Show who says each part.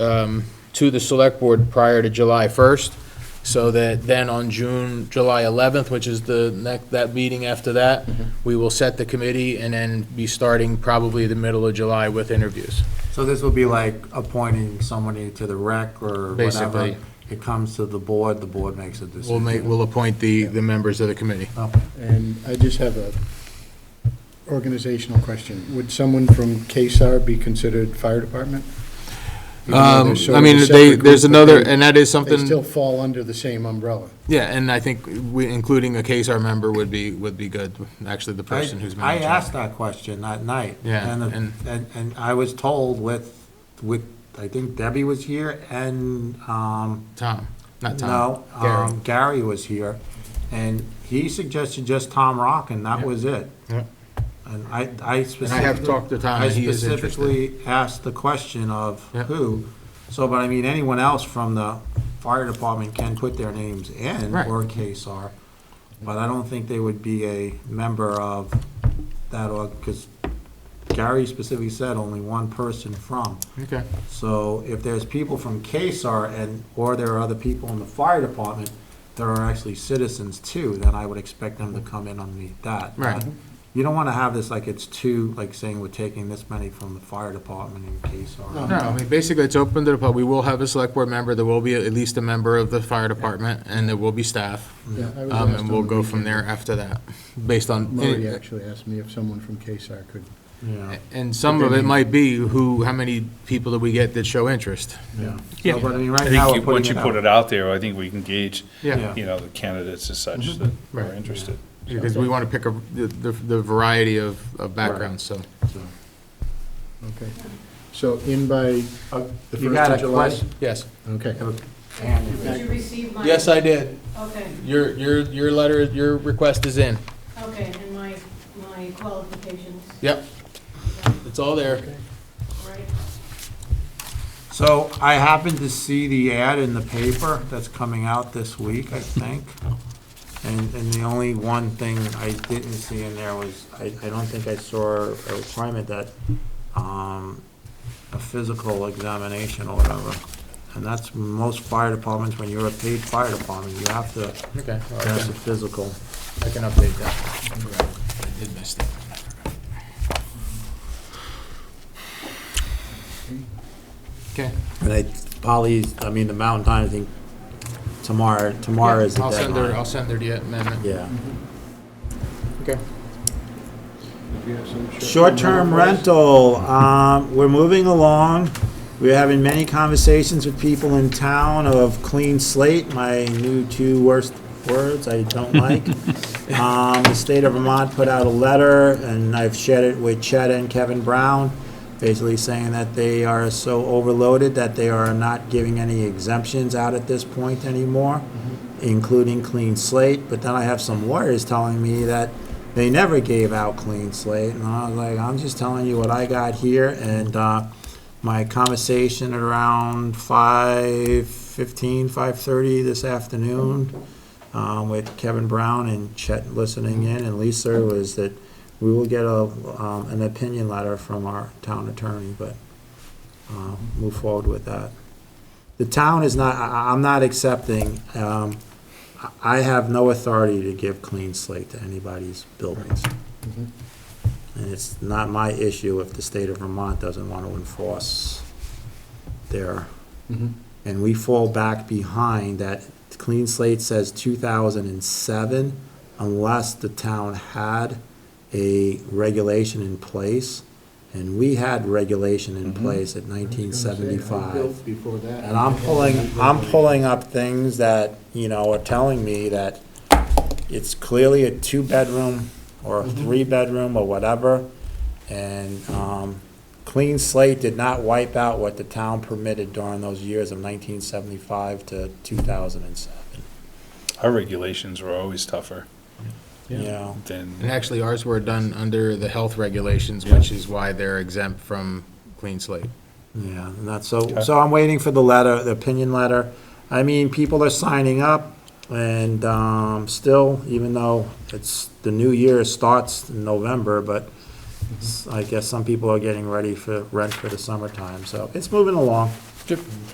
Speaker 1: um, to the select board prior to July 1st, so that then on June, July 11th, which is the next, that meeting after that, we will set the committee and then be starting probably the middle of July with interviews.
Speaker 2: So this would be like appointing somebody to the rec or
Speaker 1: Basically.
Speaker 2: whatever. It comes to the board, the board makes a decision.
Speaker 1: We'll
Speaker 2: Oh,
Speaker 1: make, we'll appoint the, the members of the committee.
Speaker 2: Okay.
Speaker 3: And I just have a organizational question. Would someone from KSAR be considered fire department? Even though they're
Speaker 1: Um,
Speaker 3: sort
Speaker 1: I
Speaker 3: of a
Speaker 1: mean,
Speaker 3: separate
Speaker 1: they,
Speaker 3: group,
Speaker 1: there's
Speaker 3: but
Speaker 1: another,
Speaker 3: they-
Speaker 1: and that is
Speaker 3: They still
Speaker 1: something,
Speaker 3: fall under the same umbrella.
Speaker 1: yeah, and I think we, including a case our member would be, would be good, actually the person who's
Speaker 2: I
Speaker 1: managing.
Speaker 2: asked that question that night.
Speaker 1: Yeah,
Speaker 2: and the-
Speaker 1: and-
Speaker 2: And, and I was told with, with, I think Debbie was here and, um,
Speaker 1: Tom, not Tom.
Speaker 2: no, um, Gary was here. And he suggested just Tom Rock and that
Speaker 1: Yeah.
Speaker 2: was it.
Speaker 1: Yeah.
Speaker 2: And I, I specifically.
Speaker 1: And I have talked to Tom,
Speaker 2: I
Speaker 1: and he is interested.
Speaker 2: specifically asked the question of
Speaker 1: Yeah.
Speaker 2: who, so, but I mean, anyone else from the fire department can put their names in,
Speaker 1: Right.
Speaker 2: or KSAR, but I don't think they would be a member of that, or, because Gary specifically said only one person from.
Speaker 1: Okay.
Speaker 2: So if there's people from KSAR and, or there are other people in the fire department that are actually citizens too, then I would expect them to come in underneath that.
Speaker 1: Right.
Speaker 2: You don't want to have this like it's too, like saying we're taking this many from the fire department in
Speaker 1: No,
Speaker 2: KSAR.
Speaker 1: I mean, basically, it's open to the public. We will have a select board member, there will be at least a member of the fire department, and there will be staff.
Speaker 3: Yeah, I
Speaker 1: Um,
Speaker 3: was asked
Speaker 1: And
Speaker 3: on
Speaker 1: we'll
Speaker 3: the
Speaker 1: go from
Speaker 3: weekend.
Speaker 1: there after that, based on.
Speaker 3: Murray actually asked me if someone from KSAR could.
Speaker 2: Yeah,
Speaker 1: And some of it might be who, how many people do we get that show interest?
Speaker 2: yeah.
Speaker 4: Yeah.
Speaker 2: So, But I mean, right
Speaker 4: I
Speaker 2: now,
Speaker 4: think
Speaker 2: we're
Speaker 4: you- once you
Speaker 2: putting
Speaker 4: put
Speaker 2: it out.
Speaker 4: it out there, I think we can gauge,
Speaker 1: Yeah,
Speaker 4: you know, the candidates as such that
Speaker 1: Right.
Speaker 4: are interested.
Speaker 1: because we want to pick a, the, the the variety of, of backgrounds, so.
Speaker 2: so.
Speaker 3: Okay. So in by
Speaker 2: Uh,
Speaker 3: the
Speaker 2: You
Speaker 3: 1st
Speaker 2: got
Speaker 3: of
Speaker 2: a
Speaker 3: July?
Speaker 2: question?
Speaker 1: Yes.
Speaker 3: Okay.
Speaker 5: Did you receive my?
Speaker 1: Yes, I did.
Speaker 5: Okay,
Speaker 1: Your, your, your letter, your request is in.
Speaker 5: okay, and my, my qualifications,
Speaker 1: Yep. It's all there.
Speaker 5: right?
Speaker 2: So I happened to see the ad in the paper that's coming out this week, I think. And, and the only one thing I didn't see in there was, I, I don't think I saw a requirement that, um, a physical examination or whatever. And that's most fire departments, when you're a paid fire department, you have to
Speaker 1: Okay.
Speaker 2: pass a physical.
Speaker 1: I can update that. I did miss that. Okay.
Speaker 2: And I, Polly's, I mean, the Mountain Time, I think tomorrow, tomorrow is the
Speaker 1: I'll send her,
Speaker 2: deadline.
Speaker 1: I'll send her the amendment.
Speaker 2: Yeah.
Speaker 1: Okay.
Speaker 3: Mm-hmm.
Speaker 2: Short-term rental, um, we're moving along. We're having many conversations with people in town of clean slate, my new two worst words I don't like. Um, the state of Vermont put out a letter, and I've shared it with Chet and Kevin Brown, basically saying that they are so overloaded that they are not giving any exemptions out at this point anymore, including clean slate. But then I have some lawyers telling me that they never gave out clean slate, and I was like, I'm just telling you what I got here, and, uh, my conversation at around five fifteen, five thirty this afternoon, um, with Kevin Brown and Chet listening in, and Lisa was that we will get a, um, an opinion letter from our town attorney, but, uh, move forward with that. The town is not, I- I, I'm not accepting, um, I- I have no authority to give clean slate to anybody's buildings. And it's not my issue if the state of Vermont doesn't want to enforce their,
Speaker 3: Mhm.
Speaker 2: and we fall back behind that clean slate says two thousand and seven, unless the town had a regulation in place, and we had regulation in place at nineteen seventy-five.
Speaker 3: Built Before that.
Speaker 2: And I'm pulling, I'm pulling up things that, you know, are telling me that it's clearly a two-bedroom or a three-bedroom or whatever. And, um, clean slate did not wipe out what the town permitted during those years of nineteen seventy-five to two thousand and seven,
Speaker 4: Our regulations were always tougher
Speaker 2: you know?
Speaker 4: than,
Speaker 1: And actually, ours were done under the health regulations, which is why they're exempt from clean slate.
Speaker 2: Yeah, and that's, so, so I'm waiting for the letter, the opinion letter. I mean, people are signing up, and, um, still, even though it's, the new year starts in November, but s- I guess some people are getting ready for rent for the summertime, so it's moving along.
Speaker 1: Sure.